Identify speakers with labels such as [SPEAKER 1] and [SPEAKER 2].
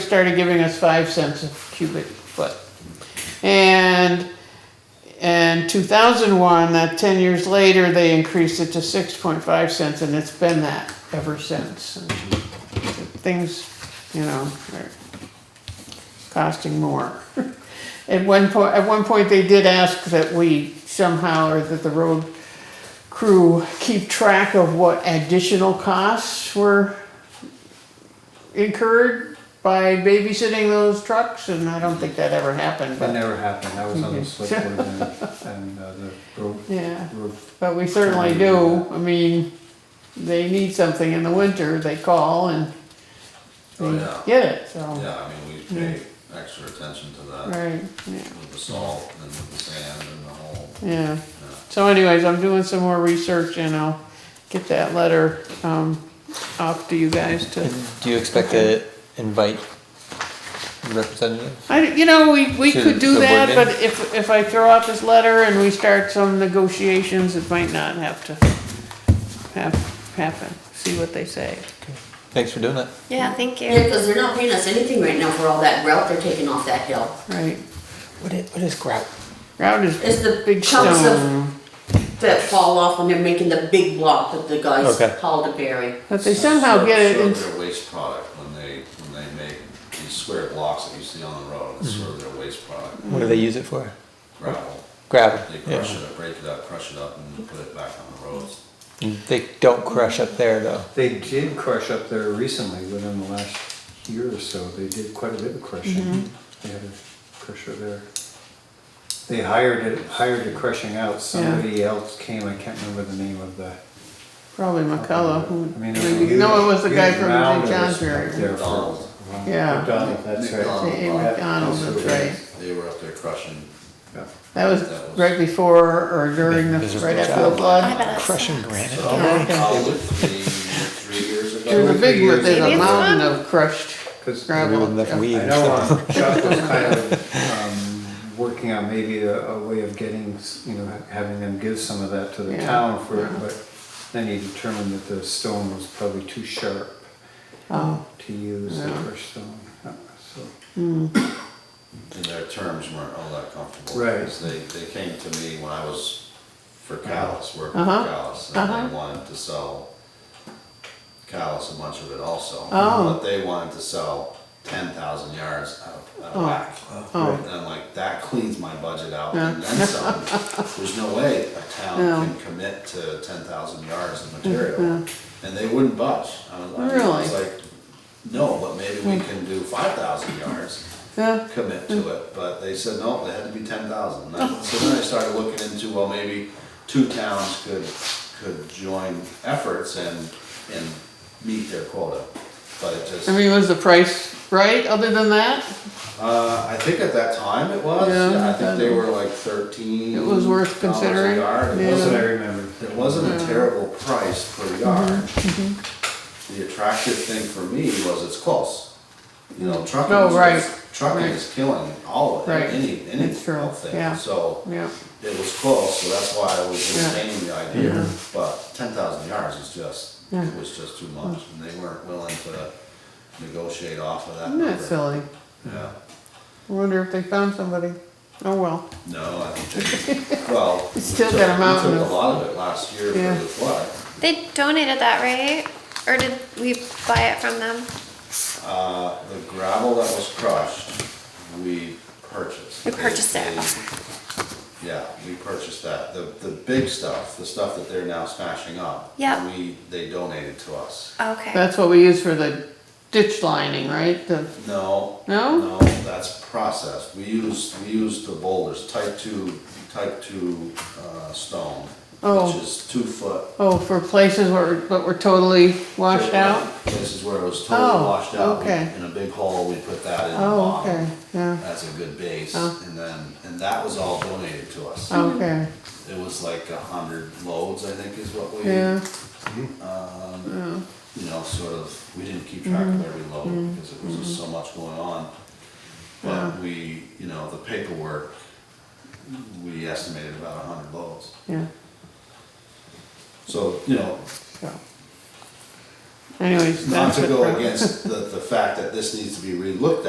[SPEAKER 1] started giving us five cents a cubic foot. And in two thousand one, that ten years later, they increased it to six point five cents, and it's been that ever since. And Things, you know, are costing more. At one point, at one point, they did ask that we somehow, or that the road crew keep track of what additional costs were incurred by babysitting those trucks, and I don't think that ever happened,
[SPEAKER 2] That
[SPEAKER 1] but,
[SPEAKER 2] never happened, I was on
[SPEAKER 1] Okay.
[SPEAKER 2] the select board and, and uh, the road,
[SPEAKER 1] yeah.
[SPEAKER 2] road,
[SPEAKER 1] But we certainly do, I mean, they need something in the winter, they call and
[SPEAKER 3] Oh,
[SPEAKER 1] they
[SPEAKER 3] yeah.
[SPEAKER 1] get it, so,
[SPEAKER 3] Yeah, I mean, we pay extra attention to that
[SPEAKER 1] right, yeah,
[SPEAKER 3] with the salt and with the sand and the whole,
[SPEAKER 1] yeah.
[SPEAKER 3] yeah.
[SPEAKER 1] So anyways, I'm doing some more research and I'll get that letter, um, off to you guys to,
[SPEAKER 4] Do you expect to invite representatives?
[SPEAKER 1] I, you know, we, we
[SPEAKER 4] To
[SPEAKER 1] could do
[SPEAKER 4] the
[SPEAKER 1] that,
[SPEAKER 4] women?
[SPEAKER 1] but if, if I throw out this letter and we start some negotiations, it might not have to have, happen, see what they say.
[SPEAKER 4] Thanks for doing it.
[SPEAKER 5] Yeah, thank you.
[SPEAKER 6] Yeah, because they're not paying us anything right now for all that grout they're taking off that hill.
[SPEAKER 1] Right,
[SPEAKER 4] What is, what is grout?
[SPEAKER 1] ground is
[SPEAKER 6] It's the
[SPEAKER 1] big
[SPEAKER 6] chunks of,
[SPEAKER 1] stone,
[SPEAKER 6] that fall off when they're making the big block that the guys
[SPEAKER 4] Okay.
[SPEAKER 6] haul to bury.
[SPEAKER 1] but they somehow
[SPEAKER 3] Sort-
[SPEAKER 1] get it
[SPEAKER 3] sort of
[SPEAKER 1] in,
[SPEAKER 3] Their waste product, when they, when they make these square blocks that you see on the road, it's sort of their waste product,
[SPEAKER 4] What do they use it for?
[SPEAKER 3] gravel.
[SPEAKER 4] Gravel.
[SPEAKER 3] They crush
[SPEAKER 4] Yeah.
[SPEAKER 3] it, up, break it up, crush it up, and put it back on the roads.
[SPEAKER 4] They don't crush up there though.
[SPEAKER 2] they did crush up there recently, within the last year or so, they did quite a bit of
[SPEAKER 1] Mm-hmm.
[SPEAKER 2] crushing. They had a crusher there. They hired it, hired a crushing out, somebody else came, I can't remember the name of the.
[SPEAKER 1] probably McCullough, who,
[SPEAKER 2] I mean, there's a
[SPEAKER 1] maybe- no, it was the
[SPEAKER 2] huge-
[SPEAKER 1] guy
[SPEAKER 2] huge
[SPEAKER 1] from St.
[SPEAKER 2] round of
[SPEAKER 1] John's
[SPEAKER 2] this up
[SPEAKER 1] area.
[SPEAKER 2] there for a
[SPEAKER 3] McDonald's.
[SPEAKER 2] while.
[SPEAKER 1] Yeah.
[SPEAKER 2] McDonald, that's right.
[SPEAKER 3] McDonald's.
[SPEAKER 1] A. McDonald, that's right.
[SPEAKER 3] They were up there crushing,
[SPEAKER 2] Yeah.
[SPEAKER 1] That was right before or during the,
[SPEAKER 4] This is
[SPEAKER 1] right
[SPEAKER 4] the
[SPEAKER 1] after the
[SPEAKER 4] job.
[SPEAKER 5] I
[SPEAKER 1] flood.
[SPEAKER 5] bet it's
[SPEAKER 4] Crushing granite?
[SPEAKER 3] probably three, three years ago.
[SPEAKER 1] There's a big,
[SPEAKER 2] years
[SPEAKER 1] there's a
[SPEAKER 5] ago.
[SPEAKER 1] mountain of crushed
[SPEAKER 2] 'Cause
[SPEAKER 4] Maybe
[SPEAKER 1] gravel.
[SPEAKER 4] with enough weed
[SPEAKER 2] I
[SPEAKER 4] or
[SPEAKER 2] know
[SPEAKER 4] something.
[SPEAKER 2] um, Chuck was kind of um, working on maybe a, a way of getting, s- you know, ha- having them give some of that to the
[SPEAKER 1] Yeah.
[SPEAKER 2] town for it, but then he determined that the stone was probably too sharp
[SPEAKER 1] Oh,
[SPEAKER 2] to use the
[SPEAKER 1] Yeah.
[SPEAKER 2] fresh stone. Uh, So,
[SPEAKER 3] and their terms weren't all that comfortable.
[SPEAKER 2] Right.
[SPEAKER 3] Because they, they came to me when I was for Callis, working for
[SPEAKER 1] Uh-huh.
[SPEAKER 3] Callis,
[SPEAKER 1] Uh-huh.
[SPEAKER 3] and they wanted to sell Callis a bunch of it also.
[SPEAKER 1] Oh.
[SPEAKER 3] But they wanted to sell ten thousand yards out out of
[SPEAKER 1] Oh.
[SPEAKER 3] whack.
[SPEAKER 1] oh,
[SPEAKER 3] And I'm like, that cleans my budget out
[SPEAKER 1] Yeah.
[SPEAKER 3] and then some. There's no way a
[SPEAKER 1] No.
[SPEAKER 3] town can commit to ten thousand yards of material. And they wouldn't budge. I was like, I was
[SPEAKER 1] Really?
[SPEAKER 3] like, no, but maybe we can do five thousand yards
[SPEAKER 1] yeah,
[SPEAKER 3] commit to it, but they said, no, it had to be ten thousand. So then I started looking into, well, maybe two towns could, could join efforts and, and meet their quota. But it just,
[SPEAKER 1] I mean, was the price right, other than that?
[SPEAKER 3] uh, I think at that time it was,
[SPEAKER 1] Yeah,
[SPEAKER 3] yeah, I think they
[SPEAKER 1] then-
[SPEAKER 3] were like thirteen.
[SPEAKER 1] It was worth
[SPEAKER 3] dollars a
[SPEAKER 1] considering,
[SPEAKER 3] yard. It
[SPEAKER 1] yeah.
[SPEAKER 2] that's what I
[SPEAKER 3] wasn't,
[SPEAKER 2] remember.
[SPEAKER 3] it wasn't
[SPEAKER 1] Mm.
[SPEAKER 3] a terrible price
[SPEAKER 1] Mm-hmm,
[SPEAKER 3] per yard. The attractive thing for me was it's close. You know, trucking
[SPEAKER 1] Oh,
[SPEAKER 3] is,
[SPEAKER 1] right,
[SPEAKER 3] what's- trucking
[SPEAKER 1] right.
[SPEAKER 3] is killing all of
[SPEAKER 1] Right,
[SPEAKER 3] it, any, any
[SPEAKER 1] it's true,
[SPEAKER 3] health thing,
[SPEAKER 1] yeah.
[SPEAKER 3] so.
[SPEAKER 1] Yeah,
[SPEAKER 3] It was close, so that's why I was
[SPEAKER 1] Yeah. Mm-hmm.
[SPEAKER 3] entertaining the idea, but ten thousand yards is just, it was just too much, and they weren't willing to negotiate off of that
[SPEAKER 1] isn't that
[SPEAKER 3] number.
[SPEAKER 1] silly?
[SPEAKER 3] Yeah,
[SPEAKER 1] I wonder if they found somebody. Oh, well,
[SPEAKER 3] no, I think, they- well. we
[SPEAKER 1] Still
[SPEAKER 3] took-
[SPEAKER 1] got a mountain
[SPEAKER 3] We took
[SPEAKER 1] of-
[SPEAKER 3] a lot of it last year for
[SPEAKER 1] Yeah.
[SPEAKER 3] the flood,
[SPEAKER 5] They donated that, right? Or did we buy it from them?
[SPEAKER 3] uh, the gravel that was crushed, we purchased.
[SPEAKER 5] We purchased it.
[SPEAKER 3] They- Yeah, we purchased that, the, the big stuff, the stuff that they're now smashing up.
[SPEAKER 5] Yeah.
[SPEAKER 3] We, they donated to us.
[SPEAKER 5] Okay.
[SPEAKER 1] that's what we use for the ditch lining, right? The,
[SPEAKER 3] No.
[SPEAKER 1] No?
[SPEAKER 3] No, that's processed. We use, we use the boulders, type two, type two, uh, stone.
[SPEAKER 1] Oh.
[SPEAKER 3] Which is two foot.
[SPEAKER 1] oh, for places where, but were totally washed out?
[SPEAKER 3] Places where it was totally
[SPEAKER 1] Oh,
[SPEAKER 3] washed out. We-
[SPEAKER 1] okay.
[SPEAKER 3] In a big hole, we put that in the
[SPEAKER 1] Oh,
[SPEAKER 3] bottom.
[SPEAKER 1] okay, yeah,
[SPEAKER 3] That's a good base,
[SPEAKER 1] Oh.
[SPEAKER 3] and then, and that was all donated to us.
[SPEAKER 1] okay,
[SPEAKER 3] It was like a hundred loads, I think is what we,
[SPEAKER 1] yeah,
[SPEAKER 3] you know, sort of, we didn't keep track
[SPEAKER 1] Mm-hmm.
[SPEAKER 3] of every load because it was just so much going on. But we, you know, the paperwork, we estimated about a hundred loads.
[SPEAKER 1] yeah,
[SPEAKER 3] So, you know,
[SPEAKER 1] so. Anyways,
[SPEAKER 3] Not
[SPEAKER 1] that's
[SPEAKER 3] to
[SPEAKER 1] what.
[SPEAKER 3] go
[SPEAKER 1] brought-
[SPEAKER 3] against the, the fact that this needs to be relooked